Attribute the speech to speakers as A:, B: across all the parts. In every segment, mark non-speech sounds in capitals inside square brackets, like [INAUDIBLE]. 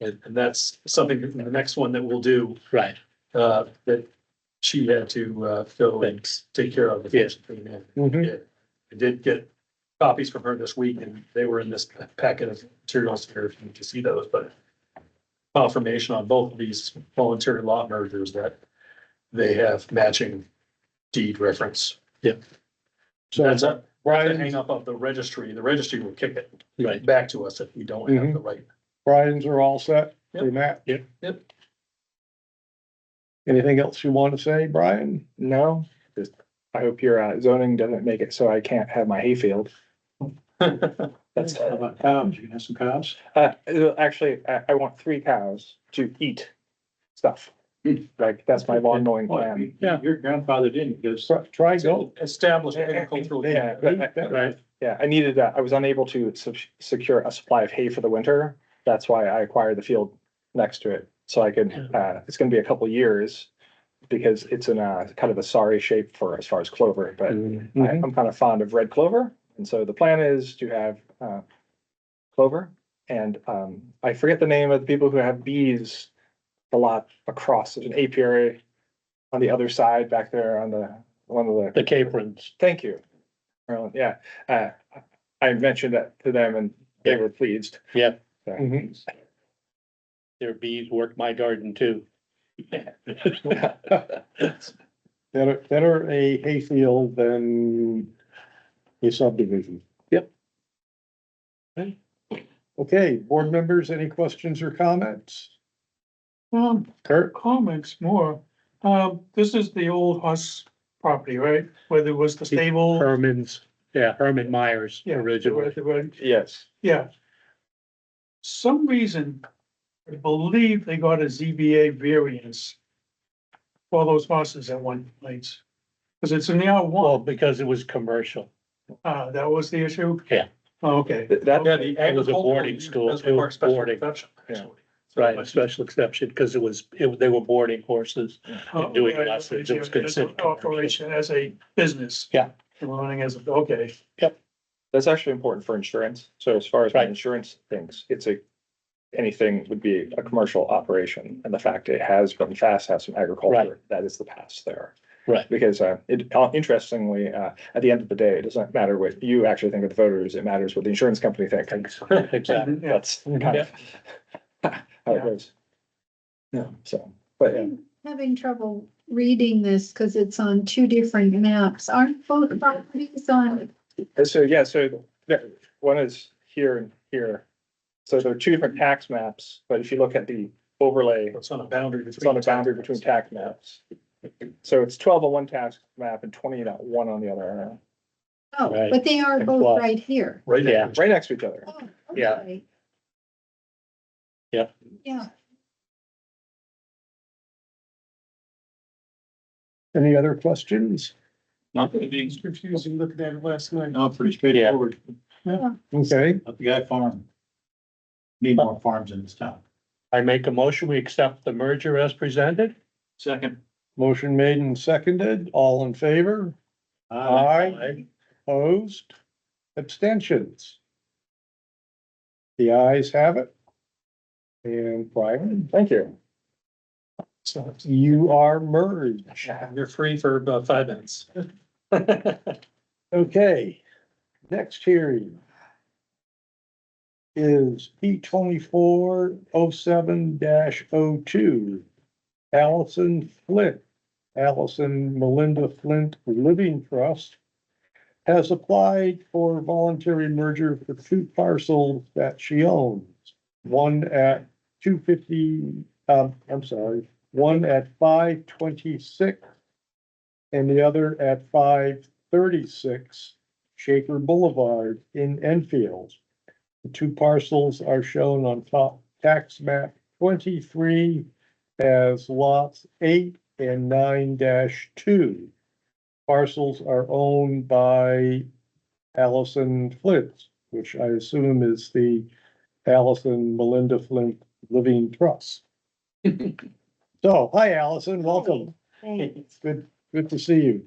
A: And, and that's something, that- the next one that we'll do,
B: Right,
A: uh, that she had to, uh, go and
B: thanks.
A: take care of.
B: Yes. Mhm.
A: I did get copies from her this week and they were in this packet of materials here, if you can see those, but confirmation on both of these voluntary lot mergers that they have matching deed reference.
B: Yep.
A: So that's a, the
C: Brian's,
A: hang up of the registry, the registry will kick it
B: Right,
A: back to us if we don't have the right.
C: Brian's are all set for
A: Yep.
C: Matt.
B: Yep.
A: Yep.
C: Anything else you want to say, Brian?
D: No, just, I hope your uh, zoning doesn't make it so I can't have my hayfield. That's,
B: how about cows, you can have some cows?
D: uh, it'll- actually, I, I want three cows to eat stuff. Like, that's my lawn mowing plan.
B: Yeah. Your grandfather didn't, because.
C: Try- Try go.
A: Establish agricultural.
D: Yeah, but I-
B: Right,
D: yeah, I needed that. I was unable to sub- secure a supply of hay for the winter. That's why I acquired the field next to it. So I could, uh, it's gonna be a couple years because it's in a kind of a sorry shape for as far as clover, but I-
C: Mhm.
D: I'm kind of fond of red clover, and so the plan is to have uh, clover, and um, I forget the name of the people who have bees a lot across. There's an apiary on the other side back there on the one of the
B: the caprins.
D: Thank you. Marilyn, yeah, uh, I mentioned that to them, and they were pleased.
C: Mhm.
B: Their bees work my garden too.
C: Better, better a hayfield than a subdivision.
B: Yep.
C: Okay, board members, any questions or comments?
E: Um,
C: Kurt?
E: comics more. Um, this is the old horse property, right? Where there was the stable.
B: Herman's, yeah, Herman Myers
E: Yeah, where
B: originally.
E: they were-
D: Yes.
E: Yeah. Some reason, I believe they got a ZBA variance for those horses at one place. Cause it's in the R
B: Well,
E: one,
B: because it was commercial.
E: uh, that was the issue?
B: Yeah.
E: Oh, Okay,
D: Th- That,
A: Yeah, the
B: It was a
A: agricultural.
B: boarding school,
A: That's
B: it was
A: part special
B: boarding.
A: exception,
D: Yeah.
A: actually.
B: Right, special exception, because it was, it- they were boarding horses.
E: Oh,
B: doing
E: okay,
B: lots of-
E: as a-
B: it's considered-
E: as a Operation as a business.
B: Yeah.
E: Running as, a okay.
D: that's actually important for insurance. So as far as my
B: Right.
D: insurance things, it's a, anything would be a commercial operation, and the fact it has been fast has some agriculture, that is the past there.
B: Right.
D: Because uh, it, uh, interestingly, uh, at the end of the day, it doesn't matter what you actually think of the voters, it matters what the insurance company thinks.
B: [LAUGHS] Exactly.
E: Yeah.
D: That's kind of [LAUGHS] how it goes. Yeah, so, but yeah.
F: I'm Having trouble reading this because it's on two different maps. Aren't both properties on,
D: And so, yeah, so the- one is here and here. So there are two different tax maps, but if you look at the overlay,
A: It's on a boundary.
D: it's on a boundary between tax maps. So it's twelve on one tax map and twenty on one on the other,
F: oh,
B: Right.
F: but they are
B: And
F: both
B: plus.
F: right here.
A: Right,
B: Yeah.
A: yeah.
D: right next to each other.
F: Oh,
B: Yeah.
F: okay.
B: Yeah.
F: Yeah,
C: Any other questions?
A: Not being confusing, looking at it last night. No, pretty
B: straightforward.
C: Okay,
G: The guy farm. Need more farms in this town.
B: I make a motion, we accept the merger as presented.
A: Second.
C: motion made and seconded, all in favor? Aye. Opposed? Abstentions? The ayes have it. And Brian,
D: Thank you.
A: So
C: you are merged.
A: you're free for about five minutes.
C: Okay, next hearing is P twenty-four oh seven 2 Allison Flint, Allison Melinda Flint Living Trust has applied for voluntary merger for two parcels that she owns. One at two fifty, um, I'm sorry, one at five twenty-six and the other at five thirty-six Shaker Boulevard in Enfield. The two parcels are shown on top tax map twenty-three as lots eight and nine two. Parcels are owned by Allison Flint, which I assume is the Allison Melinda Flint Living Trust. So, hi Allison, welcome. It's good, good to see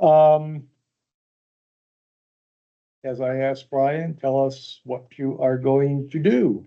C: you. Um. As I asked Brian, tell us what you are going to do.